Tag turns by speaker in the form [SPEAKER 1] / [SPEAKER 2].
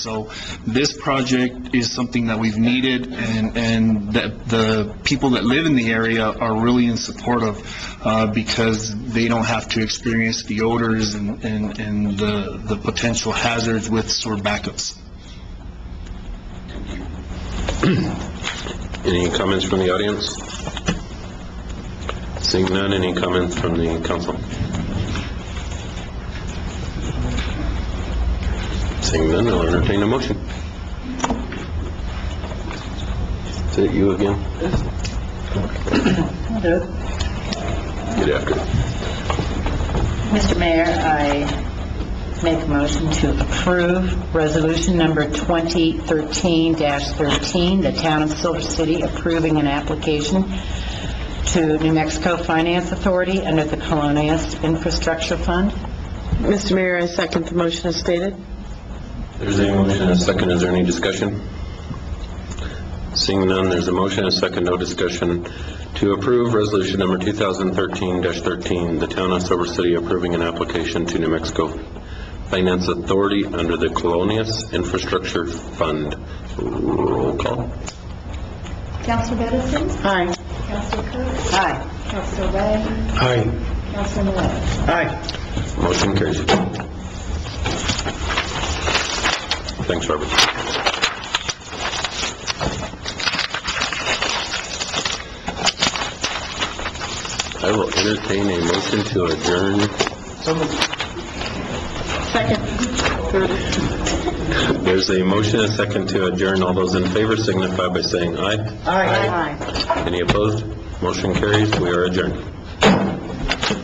[SPEAKER 1] So this project is something that we've needed, and, and that the people that live in the area are really in support of, uh, because they don't have to experience the odors and, and and the, the potential hazards with sewer backups.
[SPEAKER 2] Any comments from the audience? Seeing none, any comments from the council? Seeing none, I'll entertain a motion. Is it you again?
[SPEAKER 3] Hello.
[SPEAKER 2] Get after it.
[SPEAKER 3] Mr. Mayor, I make a motion to approve Resolution Number 2013-13, the Town of Silver City approving an application to New Mexico Finance Authority under the Colonias Infrastructure Fund.
[SPEAKER 4] Mr. Mayor, I second the motion as stated.
[SPEAKER 2] There's a motion and a second, is there any discussion? Seeing none, there's a motion and a second, no discussion, to approve resolution number 2013-13, the town of Silver City approving an application to New Mexico Finance Authority under the Colonias Infrastructure Fund. Roll call.
[SPEAKER 5] Council Edison,
[SPEAKER 4] Aye.
[SPEAKER 5] Council Cook,
[SPEAKER 3] Aye.
[SPEAKER 5] Council Ray,
[SPEAKER 2] Aye.
[SPEAKER 5] Council Millette.
[SPEAKER 2] Aye. Motion carries. Thanks, Robert. I will entertain a motion to adjourn.
[SPEAKER 4] Second.
[SPEAKER 2] There's a motion, a second to adjourn. All those in favor signify by saying aye.
[SPEAKER 4] Aye.
[SPEAKER 2] Any opposed? Motion carries. We are adjourned.